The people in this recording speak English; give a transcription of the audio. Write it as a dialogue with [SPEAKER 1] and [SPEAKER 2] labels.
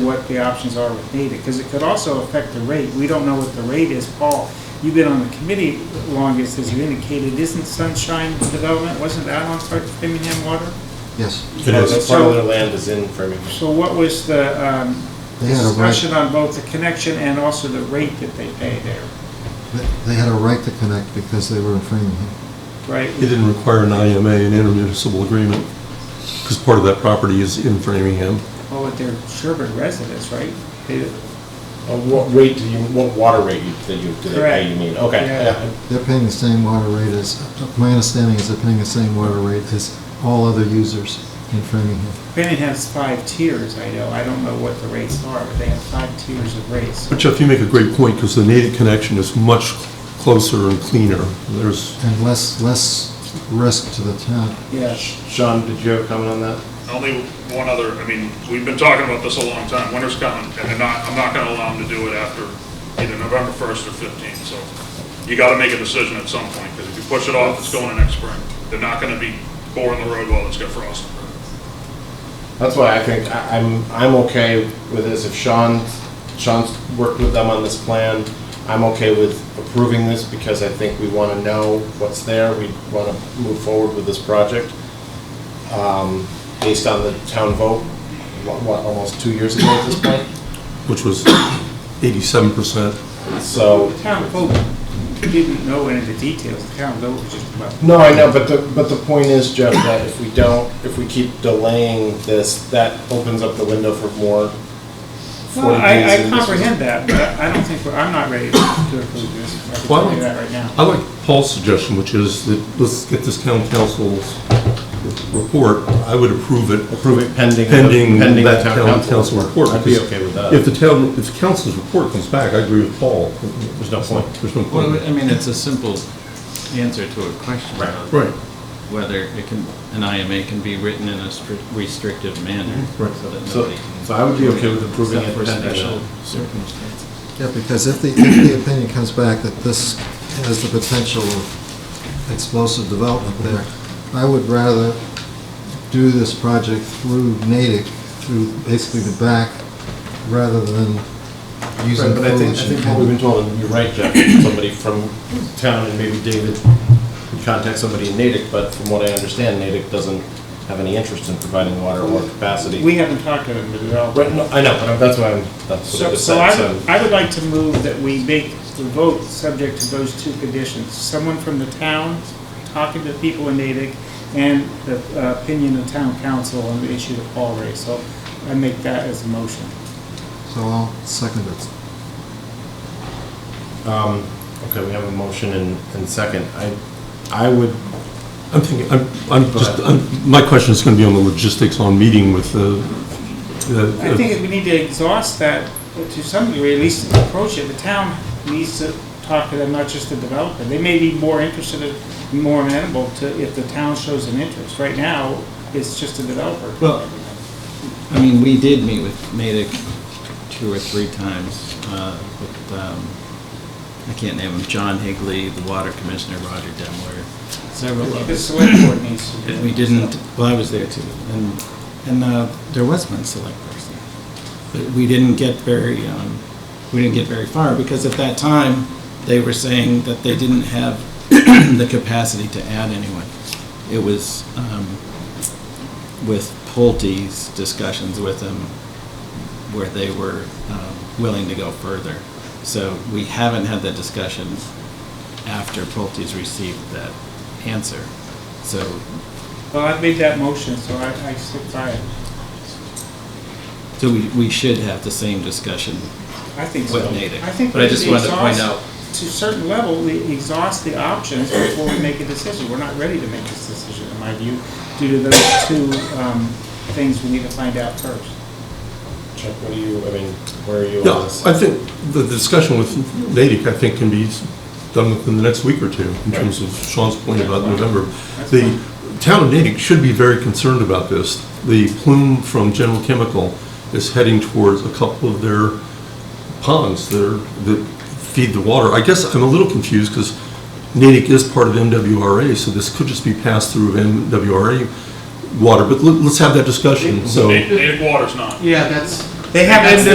[SPEAKER 1] what the options are with data, because it could also affect the rate. We don't know what the rate is. Paul, you've been on the committee longest, as you indicated, isn't Sunshine Development, wasn't that on part of Framingham Water?
[SPEAKER 2] Yes,
[SPEAKER 3] It is.
[SPEAKER 1] is.
[SPEAKER 3] Part of their land is in Framingham.
[SPEAKER 1] So what was the um,
[SPEAKER 2] They had a right-
[SPEAKER 1] discussion on both the connection and also the rate that they pay there,
[SPEAKER 2] They- they had a right to connect because they were in Framingham.
[SPEAKER 1] right?
[SPEAKER 4] It didn't require an IMA, an intermunicipal agreement, because part of that property is in Framingham.
[SPEAKER 1] Oh, but they're Sherburne residents, right? They-
[SPEAKER 3] Uh, What rate do you, what water rate you- that you, do they
[SPEAKER 1] Correct.
[SPEAKER 3] pay, you mean? Okay, Uh,
[SPEAKER 1] Yeah.
[SPEAKER 3] yeah.
[SPEAKER 2] They're paying the same water rate as, my understanding is they're paying the same water rate as all other users in Framingham.
[SPEAKER 1] Framingham has five tiers, I know. I don't know what the rates are, but they have five tiers of rates.
[SPEAKER 4] But Jeff, you make a great point, because the native connection is much closer and cleaner. There's,
[SPEAKER 2] And less, less risk to the town.
[SPEAKER 1] Yes.
[SPEAKER 3] Sean, did you have a comment on that?
[SPEAKER 5] Only one other, I mean, we've been talking about this a long time, winter's coming, and they're not, I'm not gonna allow them to do it after either November first or fifteenth, so you gotta make a decision at some point, because if you push it off, it's going to next spring. They're not gonna be boring the road while it's got frost.
[SPEAKER 3] That's why I think I- I'm, I'm okay with this. If Sean, Sean's worked with them on this plan, I'm okay with approving this because I think we want to know what's there. We want to move forward with this project um, based on the town vote, what, what, almost two years ago at this point?
[SPEAKER 4] which was 87%.
[SPEAKER 3] So,
[SPEAKER 1] The town folk didn't know any of the details. The town vote was just about,
[SPEAKER 3] no, I know, but the, but the point is, Jeff, that if we don't, if we keep delaying this, that opens up the window for more 40
[SPEAKER 1] well, I,
[SPEAKER 3] days
[SPEAKER 1] I
[SPEAKER 3] in this-
[SPEAKER 1] comprehend that, but I don't think, we're- I'm not ready to approve this. I can tell you that right now.
[SPEAKER 4] I like Paul's suggestion, which is that let's get this town council's report. I would approve it
[SPEAKER 3] Approve it pending.
[SPEAKER 4] pending
[SPEAKER 3] pending
[SPEAKER 4] that
[SPEAKER 3] the
[SPEAKER 4] town council report.
[SPEAKER 3] I'd be
[SPEAKER 4] because
[SPEAKER 3] okay with that.
[SPEAKER 4] If the town, if the council's report comes back, I agree with Paul. There's
[SPEAKER 3] no point.
[SPEAKER 4] There's no
[SPEAKER 6] Well, I
[SPEAKER 4] point.
[SPEAKER 6] mean, it's a simple answer to a question
[SPEAKER 3] Right.
[SPEAKER 6] on
[SPEAKER 4] Right.
[SPEAKER 6] whether it can, an IMA can be written in a strict- restrictive manner.
[SPEAKER 4] Right.
[SPEAKER 6] so that
[SPEAKER 3] Mm-hmm. So,
[SPEAKER 6] nobody can-
[SPEAKER 3] so I would be okay with approving
[SPEAKER 6] Except
[SPEAKER 3] it
[SPEAKER 6] for
[SPEAKER 3] pending
[SPEAKER 6] special
[SPEAKER 3] that.
[SPEAKER 6] circumstances.
[SPEAKER 2] Yeah, because if the, if the opinion comes back that this has the potential of explosive development there, I would rather do this project through Natick, through basically the back, rather than using
[SPEAKER 3] Right, But I think,
[SPEAKER 2] Coolidge.
[SPEAKER 3] I think what we've been told, and you're right, Jeff, somebody from town and maybe David could contact somebody in Natick, but from what I understand, Natick doesn't have any interest in providing water or capacity.
[SPEAKER 1] We haven't talked to them at all.
[SPEAKER 3] Right, no, I know, but that's why I'm, that's what I
[SPEAKER 1] So,
[SPEAKER 3] just
[SPEAKER 1] so
[SPEAKER 3] said,
[SPEAKER 1] I,
[SPEAKER 3] so.
[SPEAKER 1] would- I would like to move that we make the vote subject to those two conditions. Someone from the town talking to the people in Natick and the uh, opinion of town council on the issue that Paul raised. So I make that as a motion.
[SPEAKER 2] So I'll second it.
[SPEAKER 3] Um, okay, we have a motion and, and second. I, I would,
[SPEAKER 4] I'm thinking, I'm, I'm
[SPEAKER 3] Go
[SPEAKER 4] just,
[SPEAKER 3] ahead.
[SPEAKER 4] I'm- my question is going to be on the logistics on meeting with the. the-
[SPEAKER 1] I think we need to exhaust that to some degree, at least approach it. The town needs to talk to them, not just the developer. They may be more interested, in- more amenable to if the town shows an interest. Right now, it's just the developer.
[SPEAKER 6] Well- I mean, we did meet with Natick two or three times, uh, with, um, I can't name him, John Higley, the water commissioner, Roger Demler, several others.
[SPEAKER 1] The select board needs to. do
[SPEAKER 6] And We
[SPEAKER 1] it.
[SPEAKER 6] didn't, well, I was there too, and, and uh, there was one select person. But we didn't get very, um, we didn't get very far, because at that time, they were saying that they didn't have the capacity to add anyone. It was um, with Pulte's discussions with them, where they were um, willing to go further. So we haven't had that discussion after Pulte's received that answer. So
[SPEAKER 1] Well, I've made that motion, so I, I stick by it.
[SPEAKER 6] So we, we should have the same discussion.
[SPEAKER 1] I think so.
[SPEAKER 6] With Natick.
[SPEAKER 1] I think
[SPEAKER 6] But I
[SPEAKER 1] we
[SPEAKER 6] just wanted to point
[SPEAKER 1] exhaust-
[SPEAKER 6] out-
[SPEAKER 1] To a certain level, we exhaust the options before we make a decision. We're not ready to make this decision, in my view, due to those two, um, things we need to find out first.
[SPEAKER 3] Chuck, what do you, I mean, where are you
[SPEAKER 4] Yeah,
[SPEAKER 3] on this?
[SPEAKER 4] I think the discussion with Natick, I think, can be done within the next week or two, in terms of Sean's point about November. The town of Natick should be very concerned about this. The plume from General Chemical is heading towards a couple of their ponds that are, that feed the water. I guess I'm a little confused, because Natick is part of MWRA, so this could just be passed through of MWRA water, but let- let's have that discussion, so.
[SPEAKER 5] Natick Natick water's not.
[SPEAKER 7] Yeah, that's,
[SPEAKER 8] They have
[SPEAKER 1] That's-